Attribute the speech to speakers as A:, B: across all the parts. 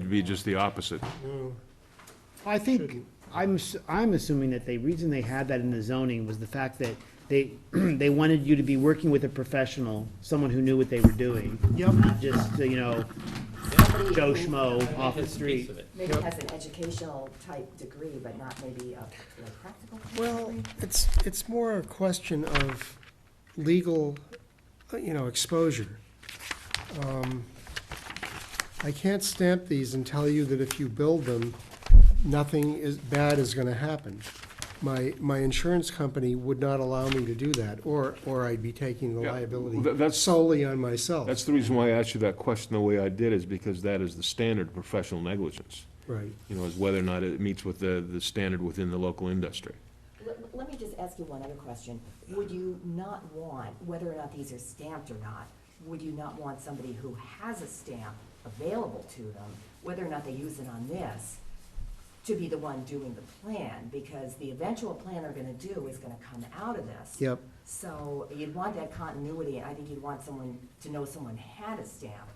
A: should be just the opposite.
B: I think, I'm, s- I'm assuming that the reason they had that in the zoning was the fact that they, they wanted you to be working with a professional, someone who knew what they were doing.
C: Yep.
B: Not just, uh, you know,
D: Somebody
B: Joe
D: who
B: Schmo off the
D: has a piece
B: street.
D: of it.
C: Yep.
E: Maybe has an educational type degree, but not maybe a like, practical type
C: Well,
E: degree.
C: it's, it's more a question of legal, uh, you know, exposure. Um, I can't stamp these and tell you that if you build them, nothing is, bad is gonna happen. My, my insurance company would not allow me to do that, or, or I'd be taking the
A: Yeah, tha-
C: liability
A: that's-
C: solely on myself.
A: That's the reason why I asked you that question the way I did, is because that is the standard of professional negligence.
C: Right.
A: You know, is whether or not it meets with the, the standard within the local industry.
E: Let, let me just ask you one other question. Would you not want, whether or not these are stamped or not, would you not want somebody who has a stamp available to them, whether or not they use it on this, to be the one doing the plan? Because the eventual plan they're gonna do is gonna come out of this.
C: Yep.
E: So you'd want that continuity, and I think you'd want someone to know someone had a stamp.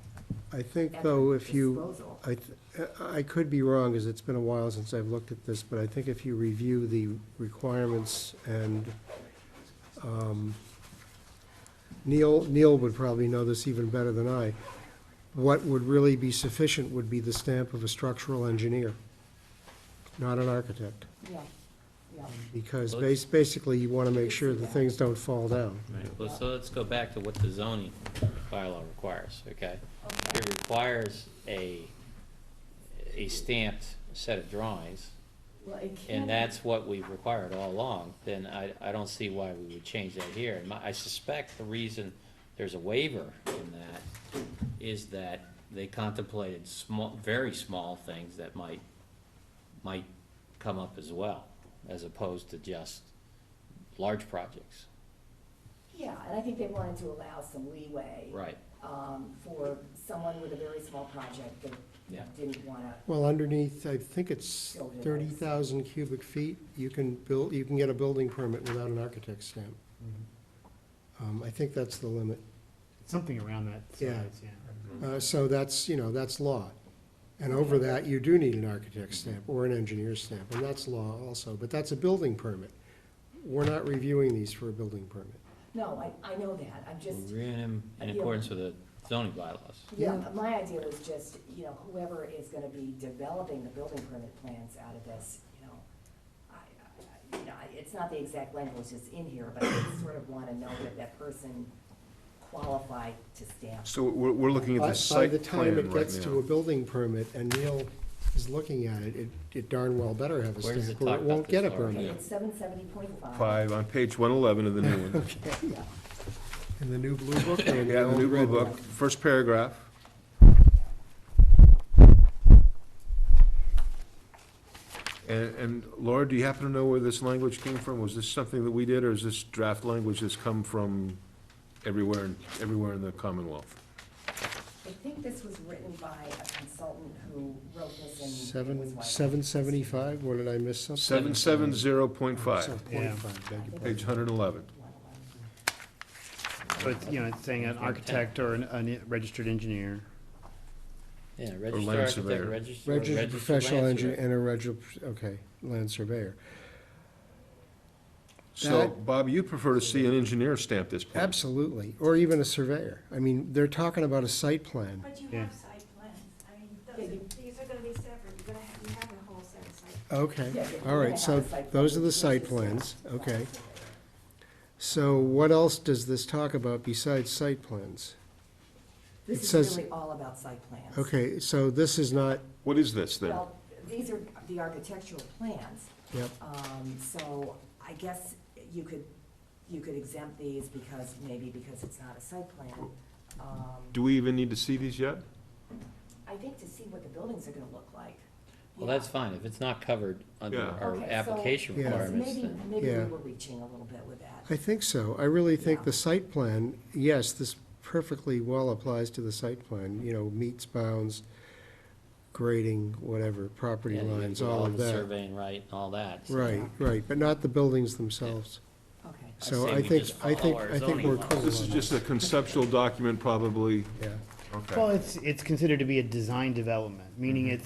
C: I think,
E: at
C: though,
E: their
C: if you,
E: disposal.
C: I, th- I could be wrong, because it's been a while since I've looked at this, but I think if you review the requirements and um, Neil, Neil would probably know this even better than I, what would really be sufficient would be the stamp of a structural engineer, not an architect,
E: Yeah, yeah.
C: because bas- basically, you want to make sure that things don't fall down.
D: Right, well, so let's go back to what the zoning bylaw requires, okay? It requires a, a stamped set of drawings,
E: Well, it can.
D: and that's what we've required all along, then I, I don't see why we would change that here. And my- I suspect the reason there's a waiver in that is that they contemplated small, very small things that might, might come up as well, as opposed to just large projects.
E: Yeah, and I think they wanted to allow some leeway.
D: Right,
E: um, for someone with a very small project
D: Yeah.
E: that didn't wanna,
C: Well, underneath, I think it's
D: Oh,
C: thirty thousand cubic feet, you can build, you can get a building permit without an architect's stamp.
D: Mm-hmm.
C: Um, I think that's the limit.
B: something around that
C: Yeah.
B: size, yeah.
C: Uh, so that's, you know, that's law. And over that, you do need an architect's stamp or an engineer's stamp, and that's law also, but that's a building permit. We're not reviewing these for a building permit.
E: no, I, I know that, I'm just,
D: we're in, in- in accordance with the zoning bylaws.
E: yeah,
C: Yeah.
E: my idea was just, you know, whoever is gonna be developing the building permit plans out of this, you know, I, I, I- you know, I- it's not the exact language that's in here, but I sort of wanna know that that person qualified to stamp.
A: So we're, we're looking at
C: By
A: the
C: by the
A: site plan
C: time it
A: right
C: gets to a
A: now.
C: building permit and Neil is looking at it, it, it darn well better have a
D: Where does
C: stamp,
D: it
C: or
D: talk
C: it
D: about
C: won't get a
D: this already?
C: permit.
E: It's seven seventy point five.
A: Five, on page one eleven of the new one.
E: Yeah,
C: In the new blue book or in
A: Yeah,
C: the
A: the
C: old
A: new blue
C: red book?
A: book, first paragraph. And, and Laura, do you happen to know where this language came from? Was this something that we did, or is this draft language that's come from everywhere, in- everywhere in the Commonwealth?
E: I think this was written by a consultant who wrote this and. it was
C: Seven,
E: like-
C: seven seventy-five, what did I miss something?
A: Seven seven zero point
C: So,
A: five,
B: Yeah.
C: 0.5, beg your
A: page
C: pardon.
A: hundred and eleven.
B: But, it's, you know, it's saying an architect or an, an registered engineer.
D: Yeah,
A: land
D: registered architect,
A: surveyor.
D: registered. or
C: Registered professional
D: land
C: engineer
D: surveyor.
C: and a registered, okay, land surveyor.
A: So,
C: That-
A: Bob, you prefer to see an engineer stamp this plan?
C: Absolutely, or even a surveyor. I mean, they're talking about a site plan.
F: But you
B: Yeah.
F: have site plans, I mean,
E: Yeah,
F: those
E: you-
F: are, these are gonna be separate, you're gonna have, you have a whole set of site.
C: Okay,
E: Yeah, yeah,
C: all
E: you
C: right,
E: have
C: so
E: a site plan.
C: those are the
E: Yes,
C: site
E: yes,
C: plans,
E: yes.
C: okay. So what else does this talk about besides site plans? It
E: This
C: says-
E: is really all about site plans.
C: Okay, so this is not,
A: What is this, then?
E: Well, these are the architectural plans,
C: yep,
E: um, so I guess you could, you could exempt these because, maybe because it's not a site plan. Um,
A: Do we even need to see these yet?
E: I think to see what the buildings are gonna look like.
D: Well, that's fine, if it's not covered under
A: Yeah.
D: our
E: Okay, so-
D: application
C: Yeah.
E: So
D: requirements,
E: Maybe,
D: then,
E: maybe we
C: Yeah.
E: were reaching a little bit with that.
C: I think so. I really think
E: Yeah.
C: the site plan, yes, this perfectly well applies to the site plan, you know, meets bounds, grading, whatever, property
D: yeah, you have
C: lines,
D: to do
C: all of
D: the
C: that.
D: Surveying right and all that. so-
C: Right, right, but not the buildings themselves.
E: Okay.
C: So
D: say
C: I
D: we
C: think,
D: just
C: I think,
D: follow our
C: I think
D: zoning
C: we're
D: laws.
C: cool
A: This is
C: on
A: just a conceptual document, probably.
C: that, yeah.
A: Okay.
B: Well, it's, it's considered to be a design development, meaning it's